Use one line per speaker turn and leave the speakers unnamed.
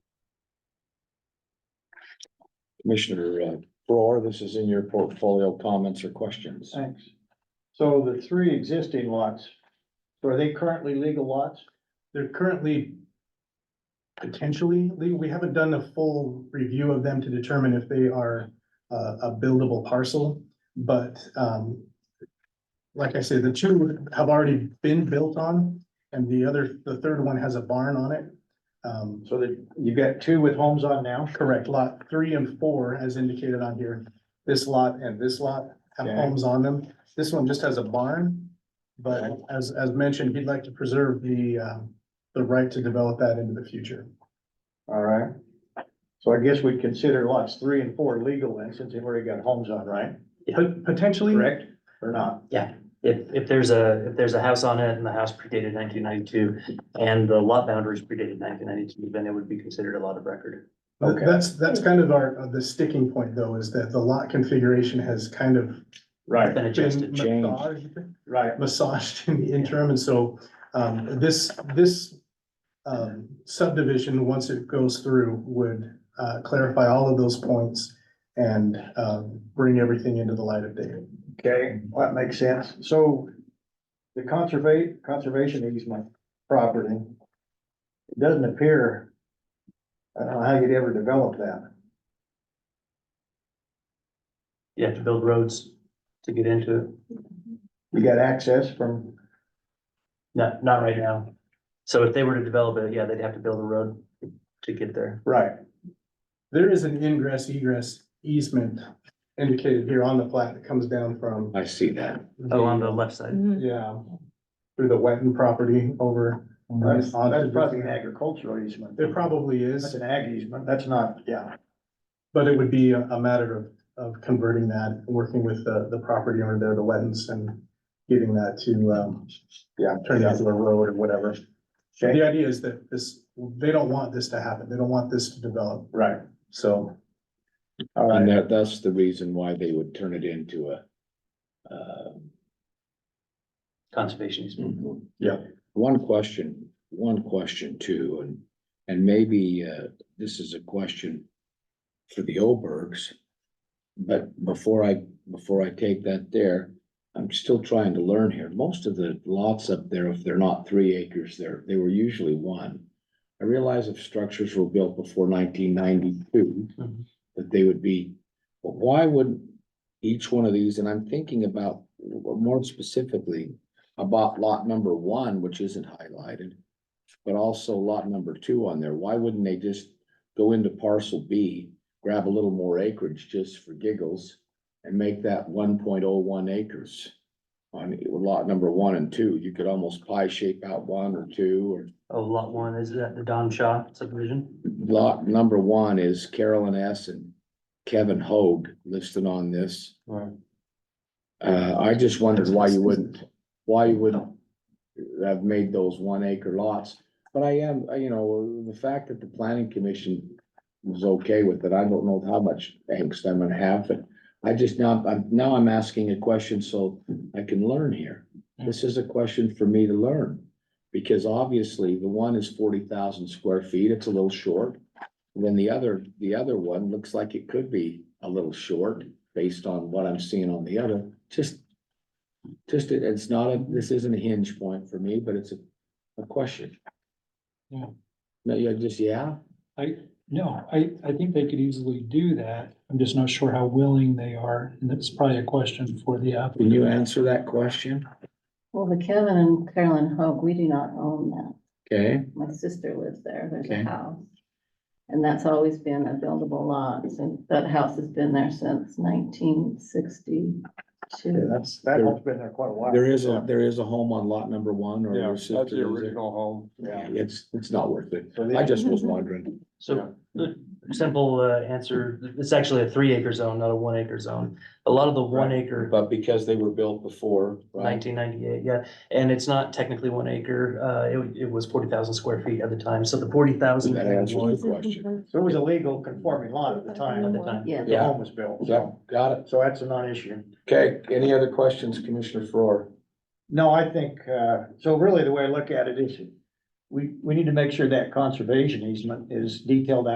Commissioner uh, Farrar, this is in your portfolio comments or questions.
Thanks. So the three existing lots, so are they currently legal lots?
They're currently potentially, legal. we haven't done a full review of them to determine if they are uh, a buildable parcel, but um, like I said, the two have already been built on, and the other, the third one has a barn on it. Um,
So that you got two with homes on now?
Correct, lot three and four, as indicated on here, this lot and this lot have
Okay.
homes on them. This one just has a barn. But as, as mentioned, he'd like to preserve the, um, the right to develop that into the future.
All right. So I guess we'd consider lots three and four legal then, since they've already got homes on, right?
But potentially,
Correct or not?
If, if there's a, if there's a house on it and the house predated nineteen ninety-two and the lot boundaries predated nineteen ninety-two, then it would be considered a lot of record.
th-
Okay.
that's, that's kind of our, uh, the sticking point though, is that the lot configuration has kind of
Right,
Been
been
adjusted.
changed.
massaged.
right.
massaged in the interim, and so, um, this, this. Um, subdivision, once it goes through, would, uh, clarify all of those points and, um, bring everything into the light of day.
Okay, well, that makes sense. So the conservate, conservation easement property, it doesn't appear, I don't know how you'd ever develop that.
You have to build roads to get into it.
You got access from,
Not, not right now. So if they were to develop it, yeah, they'd have to build a road to get there.
right,
There is an ingress egress easement indicated here on the plat that comes down from.
I see that.
Oh, on the left
Mm-hmm.
side.
Yeah, through the wetland property over.
Mm-hmm.
that's,
onto
that's
the-
probably an agricultural easement.
There probably
That's
is,
an ag easement, that's not, yeah,
but it would be a, a matter of, of converting that, working with the, the property owner there, the wetlands, and getting that to, um,
yeah.
turn it into a road or whatever.
Okay,
The idea is that this, they don't want this to happen. They don't want this to develop.
right,
So
all
And
right,
that, that's the reason why they would turn it into a. uh,
Conservation easement.
Yeah.
One question, one question too, and, and maybe, uh, this is a question for the Obergs. But before I, before I take that there, I'm still trying to learn here. Most of the lots up there, if they're not three acres, they're, they were usually one. I realize if structures were built before nineteen ninety-two,
Mhm.
that they would be, but why wouldn't each one of these, and I'm thinking about, more specifically, about lot number one, which isn't highlighted, but also lot number two on there. Why wouldn't they just go into parcel B, grab a little more acreage just for giggles and make that one point oh one acres on lot number one and two? You could almost pie shape out one or two or
Oh, lot one, is that the Don Shaw subdivision?
lot number one is Carolyn S. and Kevin Hoag listed on this.
Right.
Uh, I just wondered why you wouldn't, why you wouldn't have made those one acre lots. But I am, uh, you know, the fact that the planning commission was okay with it, I don't know how much angst I'm gonna have, but I just now, I'm, now I'm asking a question so I can learn here. This is a question for me to learn. Because obviously the one is forty thousand square feet, it's a little short. And Then the other, the other one looks like it could be a little short based on what I'm seeing on the other, just. Just, it- it's not a, this isn't a hinge point for me, but it's a, a question.
Yeah.
No, you're just, yeah,
I, no, I, I think they could easily do that. I'm just not sure how willing they are, and that's probably a question for the
can you
applicant.
answer that question?
Well, the Kevin and Carolyn Hoag, we do not own that.
Okay,
My sister lives there. There's
Okay.
a house. And that's always been a buildable lot and that house has been there since nineteen
yeah,
sixty-two.
that's, that one's been there quite a while.
there is a, there is a home on lot number one or your sister lives there.
home.
Yeah,
Yeah.
it's, it's not worth it.
So they-
I just was wondering.
So the simple uh, answer, it's actually a three acre zone, not a one acre zone. A lot of the one acre
But because they were built before, right?
Nineteen ninety-eight, yeah, and it's not technically one acre, uh, it, it was forty thousand square feet at the time, so the forty thousand.
That answers the question.
So it was a legal conforming lot at the time,
Yeah.
the home was built,
Yep,
so,
got it.
so that's a non-issue.
Okay, any other questions, Commissioner Farrar?
No, I think, uh, so really the way I look at it is, we, we need to make sure that conservation easement is detailed out.